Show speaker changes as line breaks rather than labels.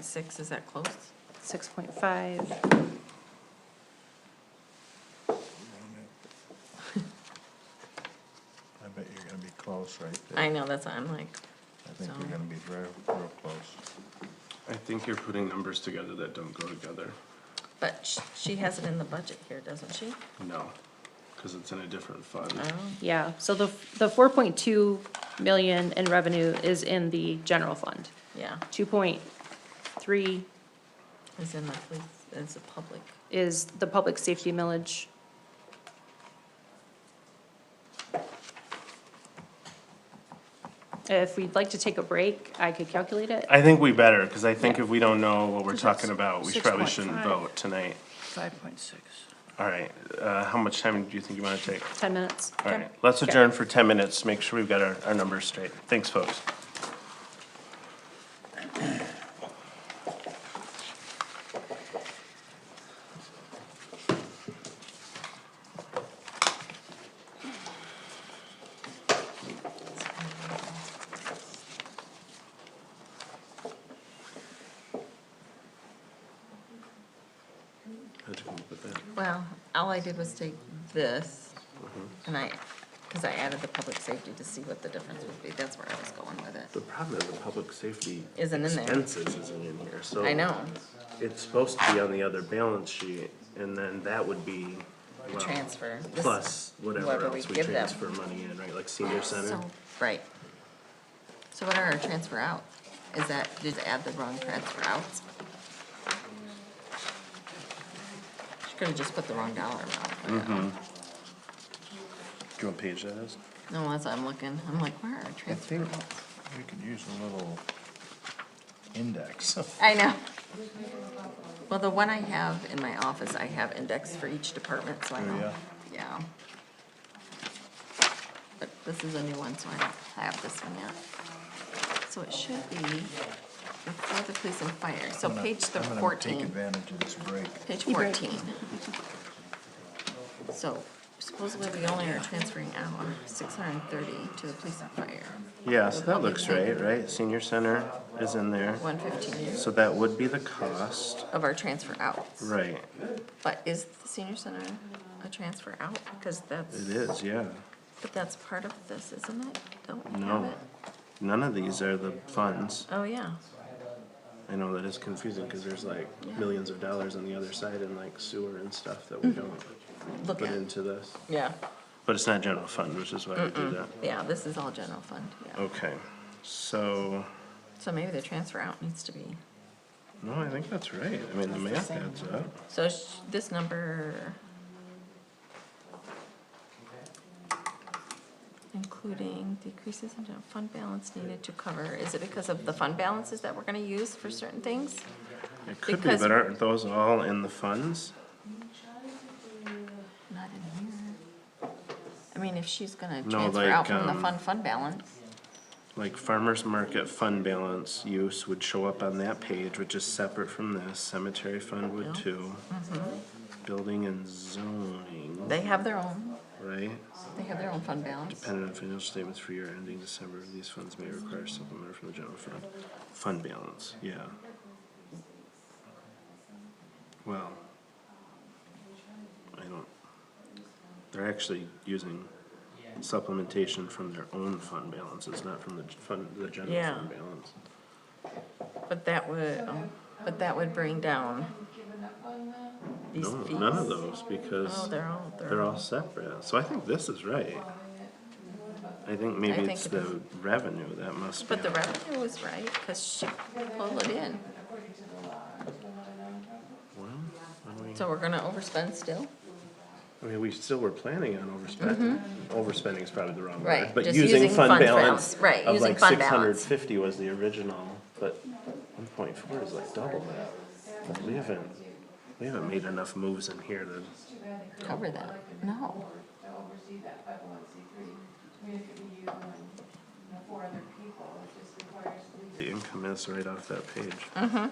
6.6, is that close?
6.5,
I bet you're gonna be close right there.
I know, that's, what I'm like,
I think
so-
you're gonna be real, real close.
I think you're putting numbers together that don't go together.
but sh- she has it in the budget here, doesn't she?
No, because it's in a different fund.
Oh,
yeah. So the, the 4.2 million in revenue is in the general fund.
yeah,
2.3
it's in the police, it's a public.
is the public safety millage. If we'd like to take a break, I could calculate it.
I think we better, because I think
Yeah.
if we don't know what we're
Because that's
talking about, we probably shouldn't
6.5.
vote tonight.
Five point six.
All right, uh, how much time do you think you want to take?
10 minutes.
All right, let's adjourn for ten minutes, make sure we've got our, our numbers straight. Thanks, folks.
Well, all I did was take this,
Mm-hmm.
and I, because I added the public safety to see what the difference would be, that's where I was going with it.
The problem is the public safety
Isn't in there.
expenses isn't in here, so.
I know,
It's supposed to be on the other balance sheet, and then that would be, well,
transfer. This-
plus whatever
whatever we
else we
give them.
transfer money in, right, like senior center?
So, right. So what are our transfer out? Is that, did it add the wrong transfer outs? She could have just put the wrong dollar amount. but-
Do you want page that is?
No, as I'm looking, I'm like, where are our transfer
think-
outs?
We could use a little index.
I know. Well, the one I have in my office, I have indexed for each department, so I
Oh,
know, yeah. But this is a new one, so I don't have this one yet. So it should be before the police and fire, so
I'm gonna-
page the
I'm gonna Take
fourteen,
advantage of this break.
page fourteen. So supposedly we only are transferring out six hundred and thirty to the police and fire,
Yeah, so that looks right, right, senior center is in there,
one fifteen
so that would be the cost,
of our transfer outs.
right,
But is the senior center a transfer out? Because that's,
it is, yeah.
but that's part of this, isn't it? Don't we have
No,
it?
none of these are the funds,
Oh, yeah.
I know that is confusing, cause there's like millions of dollars on the other side and like sewer and stuff that we don't
Mm-hmm. Look
put
at,
into this.
yeah,
But it's not general fund, which is why we do that.
yeah, this is all general fund, yeah.
Okay, so,
So maybe the transfer out needs to be,
no, I think that's right. I mean, the math adds up.
so sh- this number. Including decreases in general fund balance needed to cover, is it because of the fund balances that we're gonna use for certain things?
It could be,
Because-
but aren't those all in the funds?
Not in here. I mean, if she's gonna
No,
transfer out
like,
from the
um,
fund, fund balance.
Like farmer's market fund balance use would show up on that page, which is separate from this. Cemetery fund would too. Building and zoning,
Mm-hmm. They have their own,
right?
they have their own fund balance.
Dependent on financial statements for year ending December, these funds may require supplement from the general fund. Fund balance, yeah. Well, I don't, they're actually using supplementation from their own fund balances, not from the g- fund, the general
Yeah.
fund balance.
But that would, um, but that would bring down these
No,
fees.
none of those,
Oh,
because
they're all,
they're
they're all,
all separate, so I think this is right. I think maybe
think
it's
it
the revenue that must be.
but the
on-
revenue was right, cause she pulled it in. So we're gonna overspend still?
I mean, we still were planning on overspending. Overspending is probably the wrong word.
Mm-hmm. Right,
But
just
using
using
fund
fund
balance
balance, right,
of
using
like
fund
six
balance.
hundred fifty was the original, but one point four is like double that. We haven't, we haven't made enough moves in here to,
Cover that, no.
the income is right off that page.